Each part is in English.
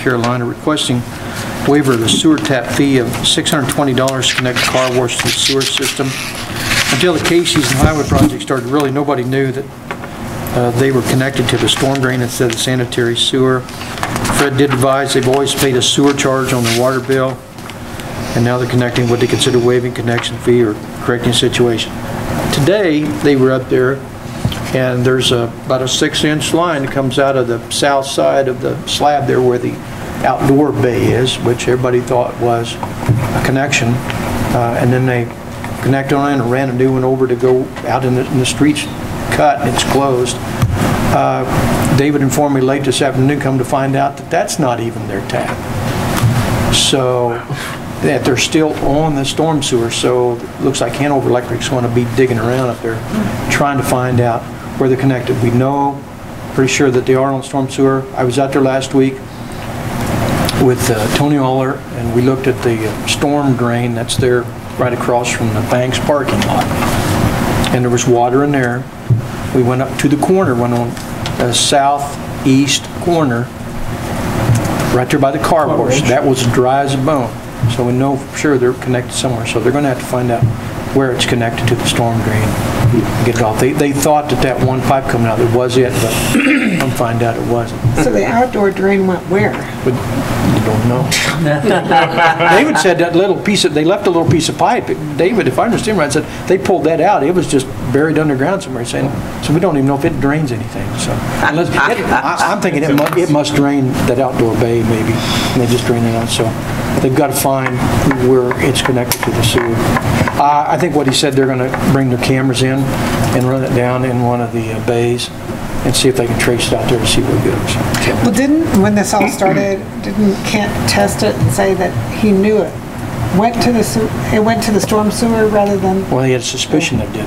Carolina, requesting waiver of the sewer tap fee of $620 to connect the car wash to the sewer system. Until the Casey's and Highway project started, really, nobody knew that uh, they were connected to the storm drain instead of sanitary sewer. Fred did advise, they've always paid a sewer charge on the water bill, and now they're connecting what they consider waiving connection fee or correcting situation. Today, they were up there, and there's a- about a six-inch line that comes out of the south side of the slab there where the outdoor bay is, which everybody thought was a connection, Uh, and then they connect on and ran a new one over to go out in the, in the streets cut, and it's closed. Uh, David informed me late this afternoon, come to find out that that's not even their tap. So, that they're still on the storm sewer, so it looks like Hanover Electric's going to be digging around up there, trying to find out where they're connected. We know, pretty sure that they are on storm sewer. I was out there last week with uh, Tony Aller, and we looked at the uh, storm drain that's there right across from the bank's parking lot and there was water in there. We went up to the corner, went on the southeast corner, right there by the car wash. That was dry as a bone. So we know for sure they're connected somewhere. So they're gonna have to find out where it's connected to the storm drain, and get it off. They, they thought that that one pipe coming out, that was it, but come find out it wasn't. So the outdoor drain went where? But you don't know. David said that little piece of, they left a little piece of pipe. David, if I understand right, said they pulled that out. It was just buried underground somewhere, saying, so we don't even know if it drains anything, so. unless- it- I- I'm thinking it must, it must drain that outdoor bay maybe, and they just drain it out, so they've got to find where it's connected to the sewer. Uh, I, I think what he said, they're going to bring their cameras in and run it down in one of the uh, bays and see if they can trace it out there to see where it goes. Well, didn't, when this all started, didn't Kent test it and say that he knew it? Went to the, sew- it went to the storm sewer rather than, Well, he had a suspicion it did.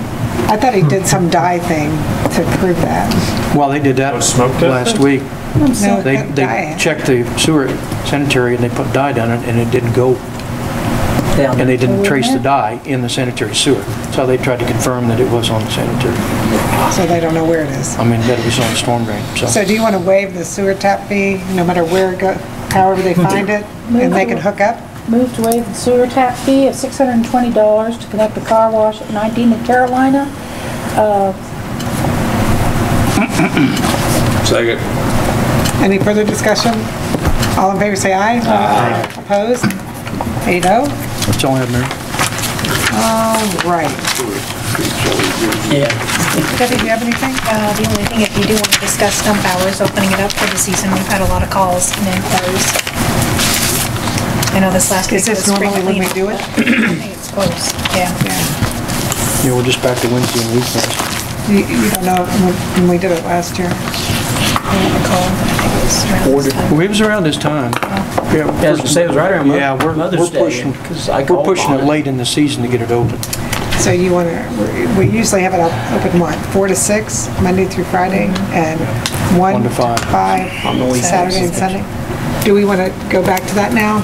I thought he did some dye thing to prove that. Well, they did that Oh, smoke test? last week. No, They, that they dye. checked the sewer sanitary and they put dye down it and it didn't go, and they didn't trace the dye in the sanitary sewer. So they tried to confirm that it was on the sanitary, So they don't know where it is. I mean, that it was on the storm drain, So so. do you want to waive the sewer tap fee, no matter where it go, however they find it, and they can hook up? Moved to waive the sewer tap fee of $620 to connect the car wash at 19 and Carolina. Second. Any further discussion? All in favor, say aye. Aye. Opposed? Eight oh. That's all I have, Mayor. All right. Debbie, do you have anything? Uh, The only thing, if you do want to discuss dump hours, opening it up for the season, we've had a lot of calls and inquiries. I know this last week Is was this spring normally when we cleanup. do it? but I think It's close, yeah. Yeah, we're just back to Wednesday and weekends. You you don't know when- when we did it last year? I don't recall, but I think it was around this time. Well, it was around this time. Yeah, I was gonna say, it was right around Mo- Yeah, we're, Mother's we're Day, pushing, 'cause I we're called pushing on it it. late in the season to get it open. So you want to, we usually have it up open what, four to six, Monday through Friday, and one One to to five. five, Saturday and Sunday? Do we want to go back to that now,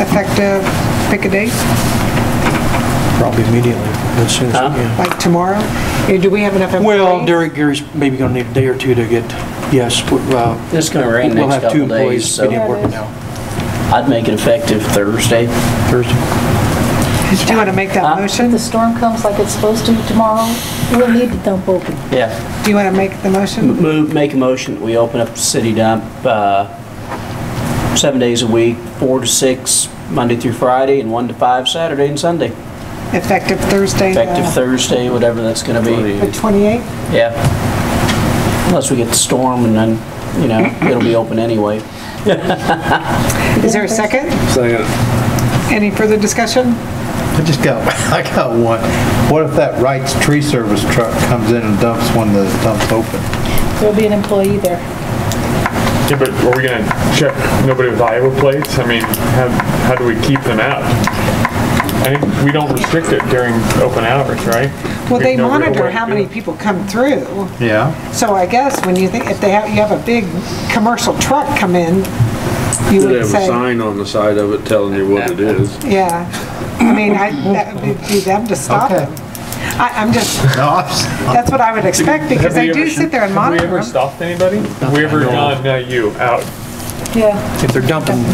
effective, pick a date, Probably immediately, as soon as, Huh? yeah. like tomorrow? Or Do we have enough employees? Well, Derek Gary's maybe gonna need a day or two to get, yes, we- well, It's gonna rain we'll next have two couple days, employees so getting working now. I'd make it effective Thursday. Thursday. Do you want to make that If motion? the storm comes like it's supposed to tomorrow, we'll need to dump open. Yeah, Do you want to make the motion? move, make a motion, that we open up the city dump, uh, seven days a week, four to six, Monday through Friday, and one to five Saturday and Sunday. Effective Thursday, the Effective Thursday, whatever that's gonna the be, 28th? yeah. Unless we get the storm and then, you know, it'll be open anyway. Is there a second? Second. Any further discussion? I just got, I got one. What if that Wright's tree service truck comes in and dumps when the dump's open? There'll be an employee there. Yeah, but are we gonna check nobody with Iowa plates? I mean, how, how do we keep them out? I think we don't restrict it during open hours, right? Well, We they have no real way monitor to how do many it. people come through. Yeah. So I guess when you think, if they have, you have a big commercial truck come in, you They would have a say, sign on the side of it telling you what it is. yeah. I mean, I, that would be them to stop Okay. them. I, I'm just, No, I'm s- that's what I would expect because Have they we do ever- sit there and monitor Have we ever them. stopped anybody? Have we ever gone, no, you, out? Yeah. If they're dumping